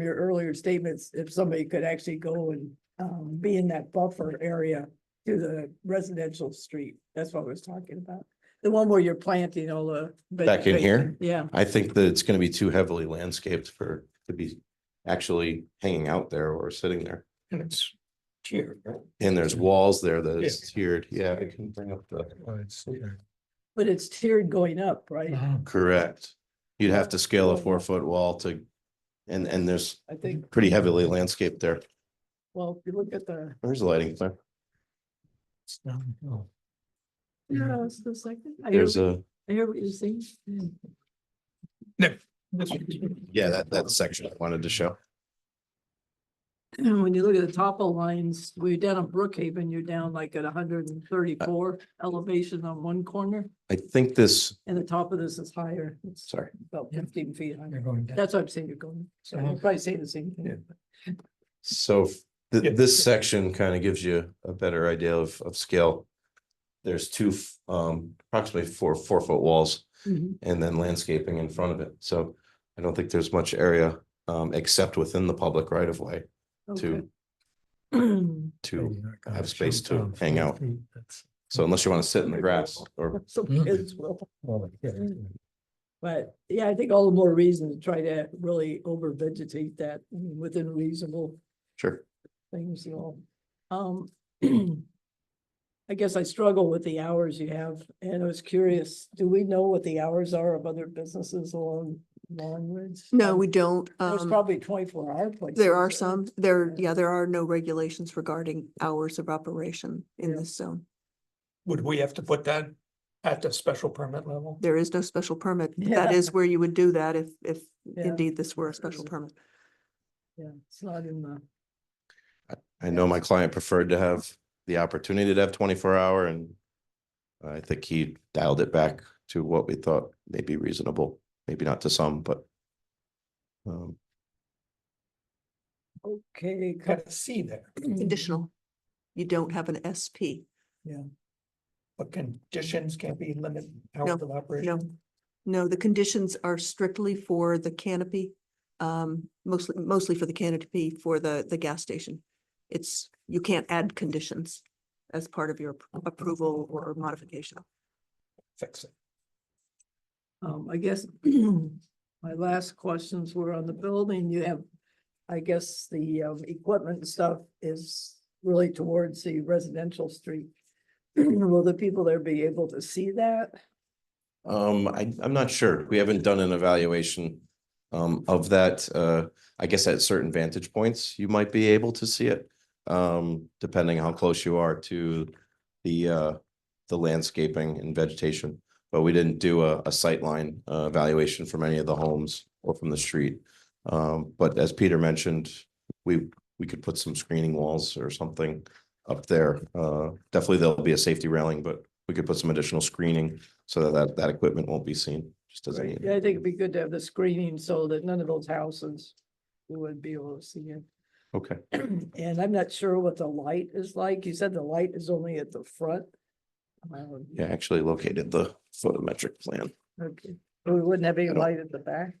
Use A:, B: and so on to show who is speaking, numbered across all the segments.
A: your earlier statements, if somebody could actually go and um be in that buffer area to the residential street, that's what I was talking about. The one where you're planting all the.
B: Back in here?
A: vegetation. Yeah,
B: I think that it's gonna be too heavily landscaped for, to be actually hanging out there or sitting there.
C: And it's cheer.
B: And there's walls there that is tiered. Yeah, I can bring up the,
A: but it's tiered going up, right?
C: Uh-huh.
B: correct. You'd have to scale a four foot wall to, and, and there's
A: I think,
B: pretty heavily landscaped there.
A: well, if you look at the,
B: There's lighting there.
A: yeah, it's the uh, second. I hear,
B: There's a,
A: I hear what you're saying.
B: yeah, that, that section I wanted to show.
A: When you look at the topo lines, we're down at Brookhaven, you're down like at hundred and thirty-four elevation on one corner,
B: I think this,
A: and the top of this is higher. It's
B: sorry,
A: About fifteen feet higher.
C: You're going down.
A: That's what I'm saying, you're going, so
C: Uh-huh.
A: you're probably saying the same
C: Yeah.
A: thing.
B: so
C: Yeah.
B: th- this section kind of gives you a better idea of, of scale. There's two, f- um, approximately four, four foot walls.
A: Mhm.
B: and then landscaping in front of it. So I don't think there's much area um except within the public right of way
A: Okay.
B: to to, have space to hang out. so unless you want to sit in the grass or
A: Some
C: Mhm.
A: kids will,
B: Mm.
C: Well,
A: but yeah, I think all the more reason to try to really over vegetate that I mean, within reasonable
B: sure.
A: things, you know. Um, I guess I struggle with the hours you have, and I was curious, do we know what the hours are of other businesses along Long Ridge?
D: No, we don't.
A: There's
D: Um,
A: probably twenty-four hour places.
D: there are some, there,
A: Yeah.
D: yeah, there are no regulations regarding hours of operation in
A: Yeah.
D: this zone.
C: Would we have to put that at the special permit level?
D: There is no special permit.
A: Yeah.
D: That is where you would do that if, if
A: Yeah. Mm.
D: indeed this were a special permit.
A: Yeah, it's not in the,
B: I know my client preferred to have the opportunity to have twenty four hour and I think he dialed it back to what we thought may be reasonable, maybe not to some, but um,
A: okay.
C: Got a C there,
D: Conditional. You don't have an SP.
C: but conditions can't be limited hours
D: No,
C: of
D: No,
C: operation.
D: no, the conditions are strictly for the canopy, um, mostly, mostly for the canopy for the, the gas station. It's, you can't add conditions as part of your
A: Oh,
D: appro- approval or modification.
C: Fix it.
A: Um, I guess my last questions were on the building. You have, I guess, the um, equipment and stuff is really towards the residential street. Will the people there be able to see that?
B: Um, I, I'm not sure. We haven't done an evaluation um, of that. Uh, I guess at certain vantage points, you might be able to see it. Um, depending how close you are to the, uh, the landscaping and vegetation. But we didn't do a, a sightline uh, evaluation from any of the homes or from the street. Um, but as Peter mentioned, we, we could put some screening walls or something up there. Uh, definitely there'll be a safety railing, but we could put some additional screening so that that, that equipment won't be seen, just as
A: Right.
B: a.
A: Yeah, I think it'd be good to have the screening so that none of those houses would be able to see it.
B: Okay,
A: And I'm not sure what the light is like. You said the light is only at the front. Um,
B: yeah, I actually located the photometric plan.
A: Okay, we wouldn't have any
B: I don't-
A: light at the back.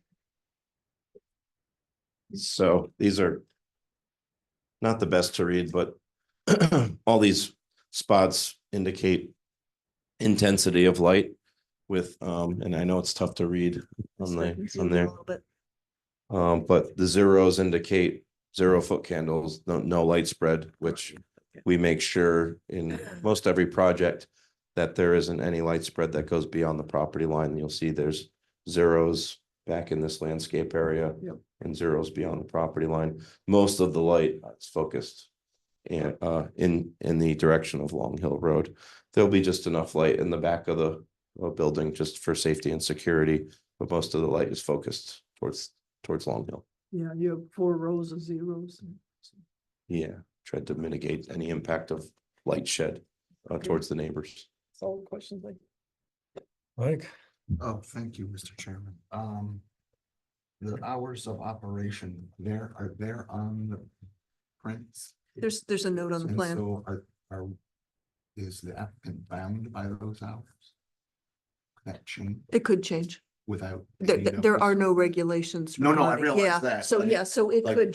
B: So these are not the best to read, but all these spots indicate intensity of light with, um, and I know it's tough to read on the, on there.
D: But
B: Um, but the zeros indicate zero foot candles, no, no light spread, which we make sure in most every project that there isn't any light spread that goes beyond the property line. You'll see there's zeros back in this landscape area
A: Yep.
B: and zeros beyond the property line. Most of the light is focused in, uh, in, in the direction of Long Hill Road. There'll be just enough light in the back of the uh, building just for safety and security, but most of the light is focused towards towards Long Hill.
A: Yeah, you have four rows of zeros.
B: Yeah, tried to mitigate any impact of light shed uh,
A: Okay.
B: towards the neighbors.
A: It's all questions like.
C: Like.
E: Oh, thank you, Mr. Chairman. Um, the hours of operation there are there on the prints.
D: There's, there's a note on the
E: And
D: plan.
E: So are, are, is the applicant bound by those hours? That change?
D: It could change. without.
E: There,
D: any
E: there are
D: notice?
E: no regulations. for
D: No, no, I
E: money.
D: realize
E: Yeah,
D: that,
E: So,
D: but it-
E: yeah, so it
D: like-
E: could